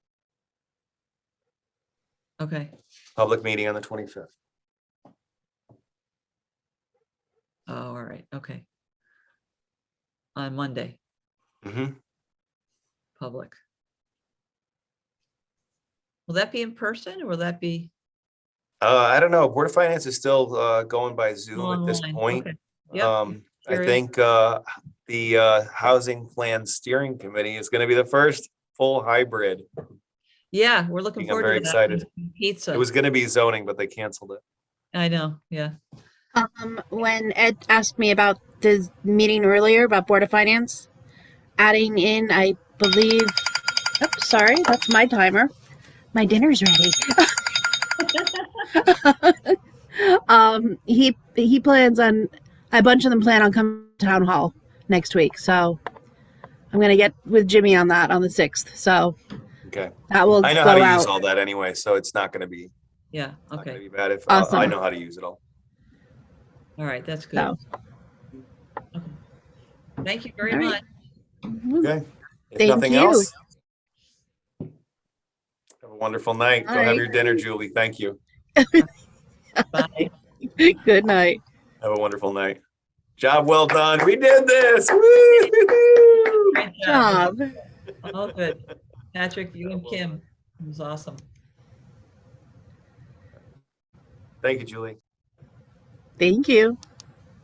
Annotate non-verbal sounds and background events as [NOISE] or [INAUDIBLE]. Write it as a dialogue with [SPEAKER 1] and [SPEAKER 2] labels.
[SPEAKER 1] Okay,
[SPEAKER 2] Public meeting on the twenty-fifth.
[SPEAKER 1] oh, all right, okay. On Monday,
[SPEAKER 2] Mm-hmm.
[SPEAKER 1] public. Will that be in person or will that be?
[SPEAKER 2] Uh, I don't know, Board of Finance is still, uh, going by Zoom at this
[SPEAKER 1] online?
[SPEAKER 2] point.
[SPEAKER 1] Okay, Yep.
[SPEAKER 2] Um, I
[SPEAKER 1] sure is.
[SPEAKER 2] think, uh, the, uh, Housing Plan Steering Committee is gonna be the first full hybrid.
[SPEAKER 1] Yeah, we're looking
[SPEAKER 2] I'm
[SPEAKER 1] forward to that.
[SPEAKER 2] very excited. It
[SPEAKER 1] Pizza,
[SPEAKER 2] was gonna be zoning, but they canceled it.
[SPEAKER 1] I know, yeah.
[SPEAKER 3] Um, when Ed asked me about the meeting earlier about Board of Finance, adding in, I believe, oops, sorry, that's my timer. My dinner's ready. [LAUGHS] um, he he plans on a bunch of them plan on coming to town hall next week, so I'm gonna get with Jimmy on that on the sixth. So
[SPEAKER 2] Okay,
[SPEAKER 3] that will
[SPEAKER 2] I know
[SPEAKER 3] go
[SPEAKER 2] how to
[SPEAKER 3] out.
[SPEAKER 2] use all that anyway, so it's not gonna be,
[SPEAKER 1] Yeah,
[SPEAKER 2] not gonna
[SPEAKER 1] okay,
[SPEAKER 2] be bad if, uh, I
[SPEAKER 3] Awesome.
[SPEAKER 2] know how to use it all.
[SPEAKER 1] all right, that's good.
[SPEAKER 3] So.
[SPEAKER 1] Okay. Thank you very
[SPEAKER 3] All right.
[SPEAKER 1] much.
[SPEAKER 3] [LAUGHS]
[SPEAKER 2] Okay. If
[SPEAKER 3] Thank
[SPEAKER 2] nothing
[SPEAKER 3] you.
[SPEAKER 2] else. Have a wonderful night. Go
[SPEAKER 3] All
[SPEAKER 2] have
[SPEAKER 3] right.
[SPEAKER 2] your dinner, Julie. Thank you.
[SPEAKER 1] Bye.
[SPEAKER 3] Good night.
[SPEAKER 2] Have a wonderful night. Job well done. We did this. Woo!
[SPEAKER 1] Great job.
[SPEAKER 3] Job.
[SPEAKER 1] All good. Patrick, you and Kim, it was awesome.
[SPEAKER 2] Thank you, Julie.
[SPEAKER 3] Thank you.